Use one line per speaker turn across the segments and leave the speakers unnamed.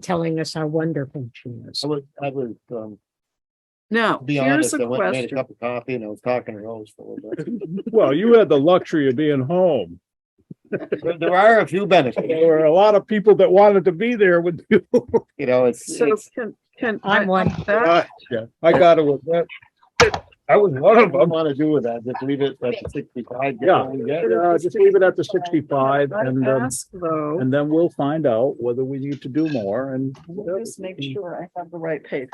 telling us how wonderful she is.
I was, I was, um,
Now,
to be
here's
honest,
a
I went and made a
question.
cup of coffee and I was talking to Rose for a little bit.
Well, you had the luxury of being home.
There- There are a few benefits,
There were a lot of people that wanted to be there with you.
you know, it's,
So
it's,
can, can. I-
I'm one.
that-
I gotta admit, I was one
I
of
don't
them.
want to do with that, just leave it at sixty-five. get
Yeah.
what we get.
Uh, just leave it at the sixty-five
I
and, um,
ask though,
and then we'll find out whether we need to do more and.
just make sure I have the right page.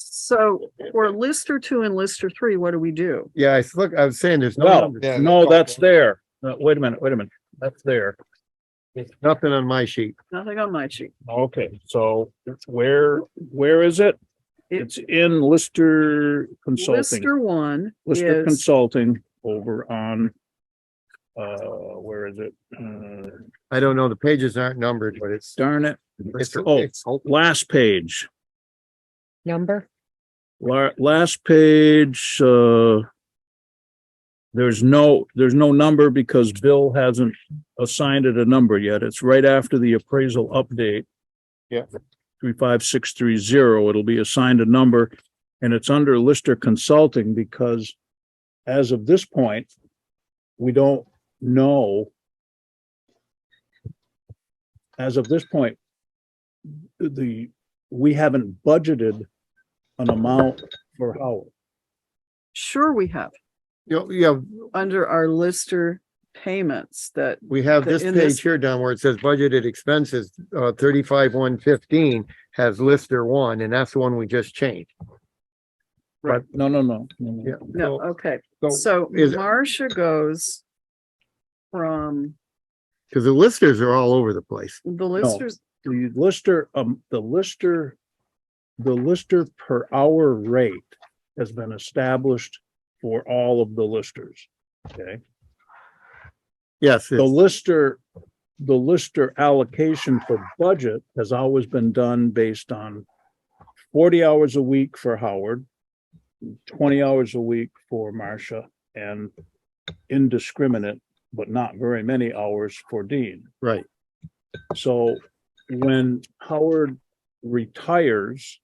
So for Lister two and Lister three, what do we do?
Yeah, I s- look, I was saying there's no
Well,
numbers.
no, that's there. No, Wait a minute, wait a minute. That's there.
Nothing on my sheet.
Nothing on my sheet.
Okay, so where, where is it?
It-
It's in Lister Consulting.
Lister one
Lister
is,
Consulting over on, uh, where is it? Uh,
I don't know. The pages aren't numbered, but it's.
Darn it,
it's-
oh.
it's-
last page,
Number?
la- last page, uh, there's no, there's no number because Bill hasn't assigned it a number yet. It's right after the appraisal update.
Yeah.
Three, five, six, three, zero. It'll be assigned a number and it's under Lister Consulting because as of this point, we don't know. As of this point, the, we haven't budgeted an amount for Howard.
sure we have,
You know, yeah,
under our Lister payments that,
we have
The-
this
in this-
page here down where it says budgeted expenses, uh, thirty-five, one fifteen has Lister one, and that's the one we just changed.
Right. No, no, no. no, no.
Yeah.
no, okay.
So-
So
is-
Marcia goes from
Cause the listers are all over the place.
the Listers,
The Lister, um, the Lister, the Lister per hour rate has been established for all of the listers. Okay,
Yes,
the
it's-
Lister, the Lister allocation for budget has always been done based on forty hours a week for Howard, twenty hours a week for Marcia, and indiscriminate, but not very many hours for Dean.
right.
So when Howard retires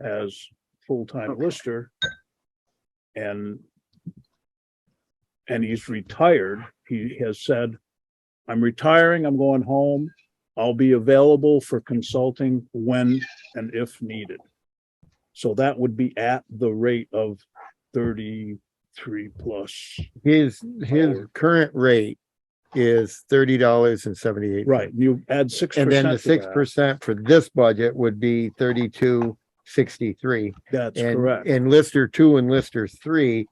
as full-time lister and and he's retired, he has said, I'm retiring, I'm going home. I'll be available for consulting when and if needed. So that would be at the rate of thirty-three plus,
His, his current rate is thirty dollars and seventy-eight.
right? You add six
And
percent.
then the six percent for this budget would be thirty-two, sixty-three.
That's
And,
correct.
and Lister two and Lister three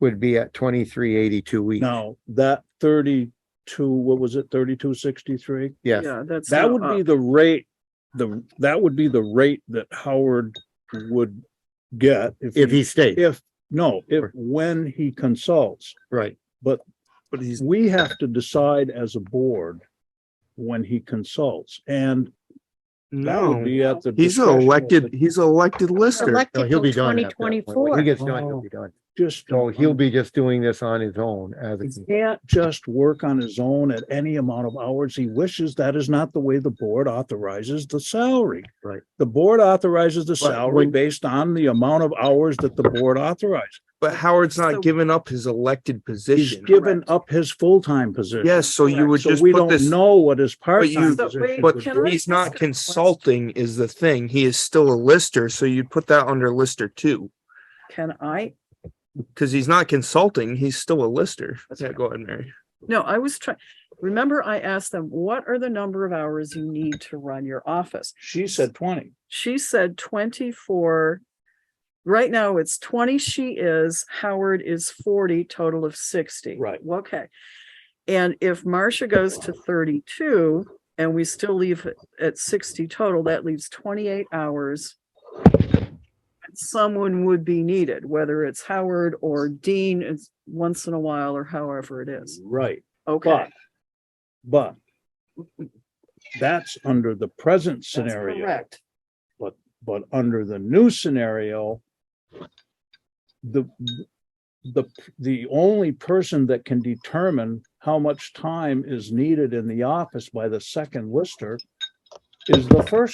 would be at twenty-three eighty-two weeks.
Now, that thirty-two, what was it, thirty-two sixty-three?
Yes,
yeah, that's.
That
now
would
uh,
up.
be the rate, the, that would be the rate that Howard would get
if he stayed,
If, no, if, when he consults.
right.
But he's. We have to decide as a board when he consults and that would
No,
be at the.
he's an
discretion of
elected,
the-
he's an elected lister.
No,
Elected
he'll be
till
done.
twenty
at that point. When
twenty-four.
He gets done, he'll be done.
Just.
So he'll be just doing this on his own as,
He
a-
can't just work on his own at any amount of hours he wishes. That is not the way the board authorizes the salary.
Right.
The board authorizes the
But
salary
when-
based on the amount of hours that the board authorizes.
But Howard's
So-
not giving up his elected
He's
position.
given
Correct.
up his full-time position.
Yes, so you would
So
just
we
put
don't
this,
know what his part-time
you-
So
position
wait,
but
would
Can I
be.
he's
ask
not
a question?
consulting is the thing. He is still a lister, so you'd put that under lister two.
Can I
Cause he's not consulting, he's still a lister. Yeah, go ahead, Mary.
No, I was trying, remember I asked them, what are the number of hours you need to run your office?
She said twenty.
She said twenty-four. Right now, it's twenty she is, Howard is forty, total of sixty.
Right.
Okay. And if Marcia goes to thirty-two and we still leave it at sixty total, that leaves twenty-eight hours. Someone would be needed, whether it's Howard or Dean, it's once in a while or however it is.
Right,
Okay.
but, but that's under the present scenario.
Correct.
But under the new scenario, the, the, the only person that can determine how much time is needed in the office by the second lister is the first